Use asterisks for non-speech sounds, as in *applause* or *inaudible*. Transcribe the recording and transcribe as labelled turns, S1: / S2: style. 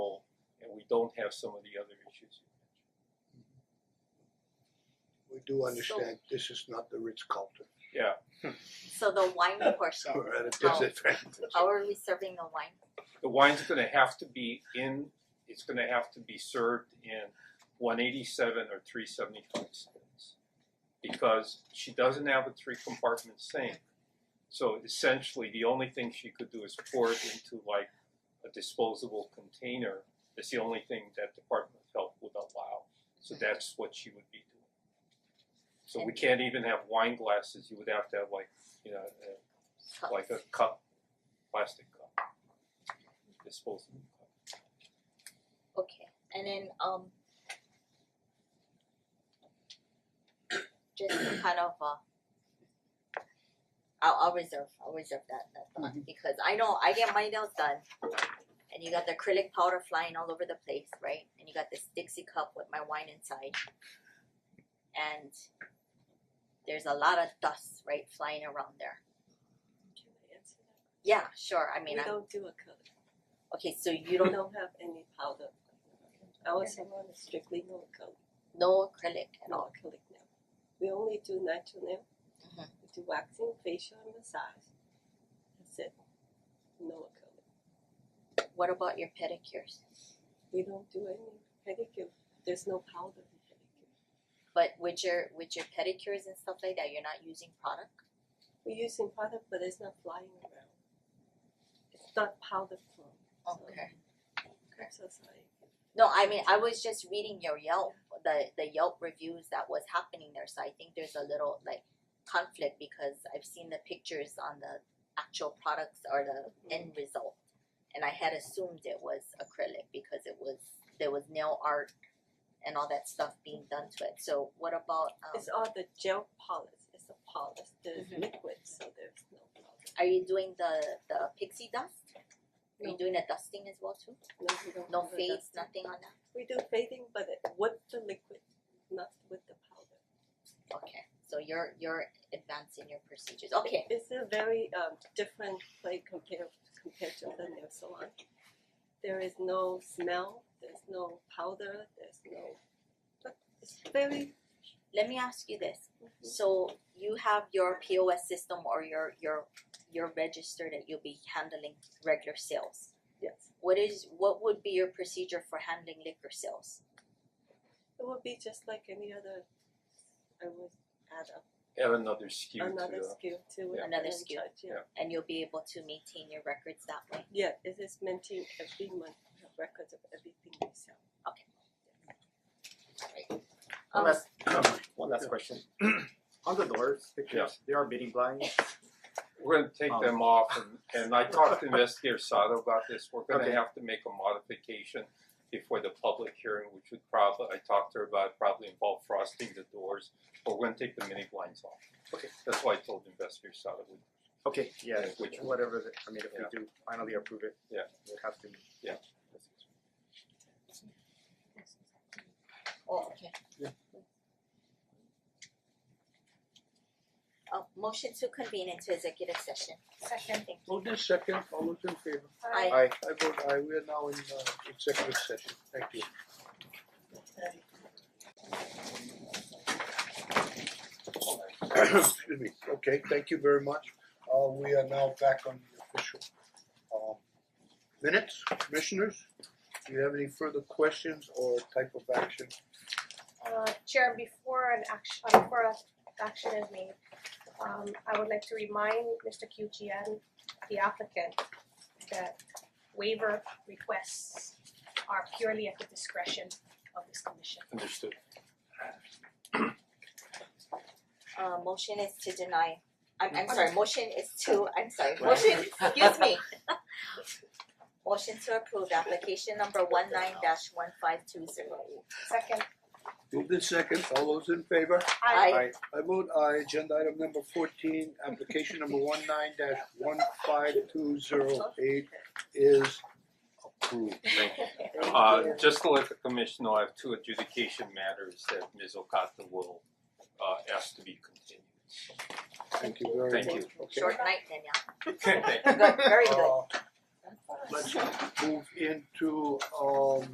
S1: don't have some of the other issues you mentioned.
S2: We do understand this is not the Ritz Carlton,
S3: So the wine portion,
S2: we're at a
S3: How-
S2: disadvantage.
S3: how are we serving the wine?
S1: The wine's gonna have to be in, it's gonna have to be served in one eighty-seven or three seventy-five cents. Because she doesn't have a three compartment sink. So essentially, the only thing she could do is pour it into like a disposable container. That's the only thing that Department of Health would allow, so that's what she would be doing. So we can't even have wine glasses, you would have to have like, you know, a
S3: Cups.
S1: like a cup, plastic cup, disposable cup.
S3: Okay, and then um just to kind of uh I'll I'll reserve, I'll reserve that that thought because I know I get my nails done and you got the acrylic powder flying all over the place, right? And you got this Dixie cup with my wine inside. And there's a lot of dust, right, flying around there.
S4: Can I answer that?
S3: Yeah, sure. I mean,
S4: We
S3: I'm,
S4: don't do a coat,
S3: okay, so you
S4: we
S3: don't
S4: don't have any powder. Our salon is strictly no coat,
S3: know acrylic at all.
S4: no acrylic nail. We only do natural nail.
S3: Mhm.
S4: We do waxing, facial and massage. That's it. No acrylic.
S3: What about your pedicures?
S4: We don't do any pedicure. There's no powder in pedicure.
S3: But with your with your pedicures and stuff like that, you're not using product.
S4: We're using powder, but it's not flying around. It's not powder form. So- I'm so sorry.
S3: No, I mean I was just reading your Yelp, the the Yelp reviews that was happening there. So I think there's a little like conflict because I've seen the pictures on the actual products or the end result, and I had assumed it was acrylic because it was there was nail art and all that stuff being done to it. So what about um,
S4: It's all the gel polish. It's a polish. There's
S3: Mhm.
S4: liquid, so there's no powder.
S3: are you doing the the pixie dust? Are you
S4: No.
S3: doing the dusting as well too?
S4: No, we don't
S3: No
S4: do the
S3: fades,
S4: dusting.
S3: nothing on that.
S4: We do fading, but it- with the liquid, not with the powder.
S3: Okay, so you're you're advancing your procedures. Okay,
S4: It's a very um different play compared compared to the nail salon. There is no smell, there's no powder, there's no, but it's very,
S3: let me ask you this. So you have your POS system or your your your register that you'll be handling regular sales.
S4: yes.
S3: What is what would be your procedure for handling liquor sales?
S4: It would be just like any other, I would add up
S1: Add another SKU to uh,
S4: another
S1: the,
S4: skill to it.
S3: Yeah. Another
S4: and
S3: SKU.
S4: charge, Yeah,
S3: And you'll be able to maintain your records that way.
S4: yeah, it is minting every month, we have records of everything we sell.
S5: One
S3: Um,
S5: last, one last question. On the doors, pictures, there are bidding blinds.
S1: we're gonna take
S5: Oh.
S1: them off and and I talked to investigator Sato about this, we're gonna
S5: Okay.
S1: have to make a modification before the public hearing, which would probably, I talked to her about, probably involve frosting the doors, but we're gonna take the mini blinds off.
S5: Okay.
S1: That's why I told investigator Sato, we,
S5: Okay, yeah,
S1: Which-
S5: whatever, the- I mean, if
S1: Yeah.
S5: we do finally approve it,
S1: Yeah.
S5: it has to be.
S1: Yeah.
S3: oh, okay.
S5: Yeah.
S3: Uh, motion to convene into executive session. Second. Thank you.
S2: Hold this second, all those in favor,
S3: Aye.
S5: Aye.
S2: I vote aye, we are now in uh executive session, thank you. *coughs* Excuse me, okay, thank you very much, uh we are now back on the official um minutes, commissioners. Do you have any further questions or type of action?
S6: Uh Chair, before an action, uh, before a action is made, um I would like to remind Mister Q G N, the applicant, that waiver requests are purely at the discretion of this commission.
S1: understood,
S3: Uh motion is to deny, I'm I'm sorry, motion is to, I'm sorry, motion, excuse me. *laughs* Motion to approve application number one nine dash one five two zero.
S6: Second,
S2: Move this second, all those in favor?
S6: I
S5: Aye.
S2: I vote aye, agenda item number fourteen, application number one nine dash one five two zero eight is approved.
S1: thank you. Uh just to let the commission know, I have two adjudication matters that Ms. Okata will uh ask to be continued.
S2: Thank you very much.
S1: Thank *laughs* you.
S2: Okay.
S3: *laughs* Short night, Danielle.
S1: Thank you.
S3: Good, very good.
S2: Uh, Let's move into um